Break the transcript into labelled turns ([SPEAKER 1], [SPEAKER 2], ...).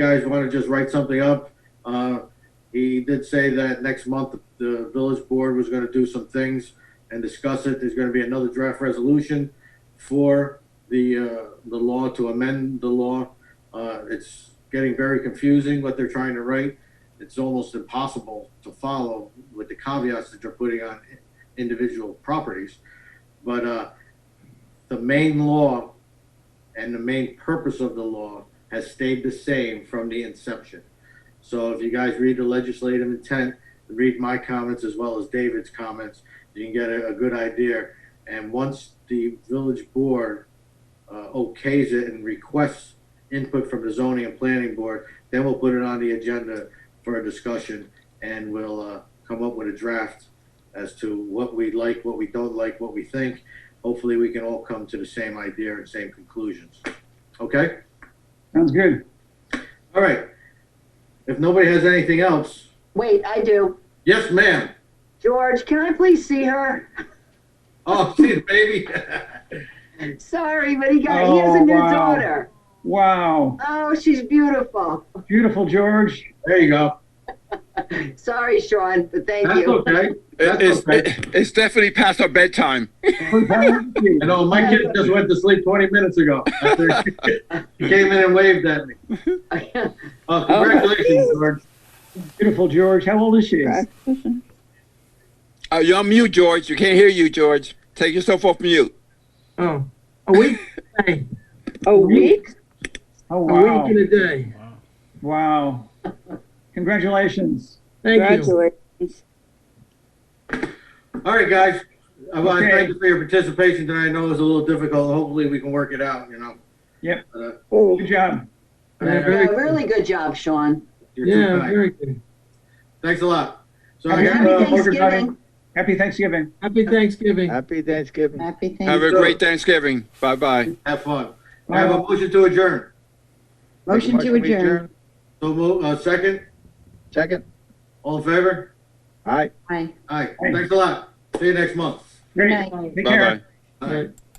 [SPEAKER 1] guys want to just write something up, uh, he did say that next month, the village board was going to do some things and discuss it. There's going to be another draft resolution for the, uh, the law to amend the law. Uh, it's getting very confusing what they're trying to write. It's almost impossible to follow with the caveats that they're putting on individual properties. But, uh, the main law and the main purpose of the law has stayed the same from the inception. So if you guys read the legislative intent, read my comments as well as David's comments, you can get a, a good idea. And once the village board uh, okays it and requests input from the zoning and planning board, then we'll put it on the agenda for a discussion and we'll uh, come up with a draft as to what we like, what we don't like, what we think. Hopefully, we can all come to the same idea and same conclusions. Okay?
[SPEAKER 2] Sounds good.
[SPEAKER 1] All right. If nobody has anything else,
[SPEAKER 3] Wait, I do.
[SPEAKER 1] yes, ma'am.
[SPEAKER 3] George, can I please see her?
[SPEAKER 1] Oh, see the baby.
[SPEAKER 3] Sorry, but he got he has a
[SPEAKER 2] Oh,
[SPEAKER 3] new
[SPEAKER 2] wow.
[SPEAKER 3] daughter.
[SPEAKER 2] Wow.
[SPEAKER 3] Oh, she's beautiful.
[SPEAKER 2] Beautiful, George.
[SPEAKER 1] there you go.
[SPEAKER 3] Sorry, Sean, but thank
[SPEAKER 1] That's
[SPEAKER 3] you.
[SPEAKER 1] okay. That's
[SPEAKER 4] It's,
[SPEAKER 1] okay.
[SPEAKER 4] it's definitely past our bedtime.
[SPEAKER 2] Thank you.
[SPEAKER 1] I know my kid just went to sleep 20 minutes ago. After he came in and waved at me. Oh, congratulations, George.
[SPEAKER 2] Beautiful, George. How old is she?
[SPEAKER 4] Uh, you're on mute, George. You can't hear you, George. Take yourself off mute.
[SPEAKER 5] Oh, a week a day,
[SPEAKER 3] A week?
[SPEAKER 2] Oh,
[SPEAKER 5] a
[SPEAKER 2] wow.
[SPEAKER 5] week and a day.
[SPEAKER 2] Wow. Congratulations.
[SPEAKER 5] Thank you.
[SPEAKER 1] All right, guys. I want to
[SPEAKER 2] Okay.
[SPEAKER 1] thank you for your participation tonight. I know it was a little difficult. Hopefully, we can work it out, you know.
[SPEAKER 2] Yep.
[SPEAKER 1] But, uh,
[SPEAKER 3] Oh,
[SPEAKER 2] Good job.
[SPEAKER 5] Yeah,
[SPEAKER 3] Yeah,
[SPEAKER 5] very good.
[SPEAKER 3] really good job, Sean.
[SPEAKER 1] you're too
[SPEAKER 5] Yeah,
[SPEAKER 1] kind.
[SPEAKER 5] very good.
[SPEAKER 1] Thanks a lot. So I
[SPEAKER 2] Happy
[SPEAKER 1] got,
[SPEAKER 3] Happy
[SPEAKER 2] uh,
[SPEAKER 1] uh,
[SPEAKER 2] Morgan
[SPEAKER 3] Thanksgiving.
[SPEAKER 2] Happy Thanksgiving.
[SPEAKER 5] Happy Thanksgiving.
[SPEAKER 6] Happy Thanksgiving.
[SPEAKER 3] Happy
[SPEAKER 4] Have
[SPEAKER 3] Thanksgiving.
[SPEAKER 4] a great Thanksgiving. Bye bye.
[SPEAKER 1] have fun. I have a
[SPEAKER 2] Wow.
[SPEAKER 1] motion to adjourn.
[SPEAKER 3] Motion to
[SPEAKER 6] Motion to
[SPEAKER 3] adjourn.
[SPEAKER 1] So, mo- uh, second,
[SPEAKER 6] Second.
[SPEAKER 1] all in favor?
[SPEAKER 6] Aye.
[SPEAKER 1] All
[SPEAKER 3] Aye.
[SPEAKER 1] right,
[SPEAKER 2] Thanks.
[SPEAKER 1] thanks a lot. See you next month.
[SPEAKER 2] Great.
[SPEAKER 3] Good night.
[SPEAKER 2] Take
[SPEAKER 4] Bye
[SPEAKER 2] care.
[SPEAKER 4] bye.
[SPEAKER 1] All right.
[SPEAKER 5] Right.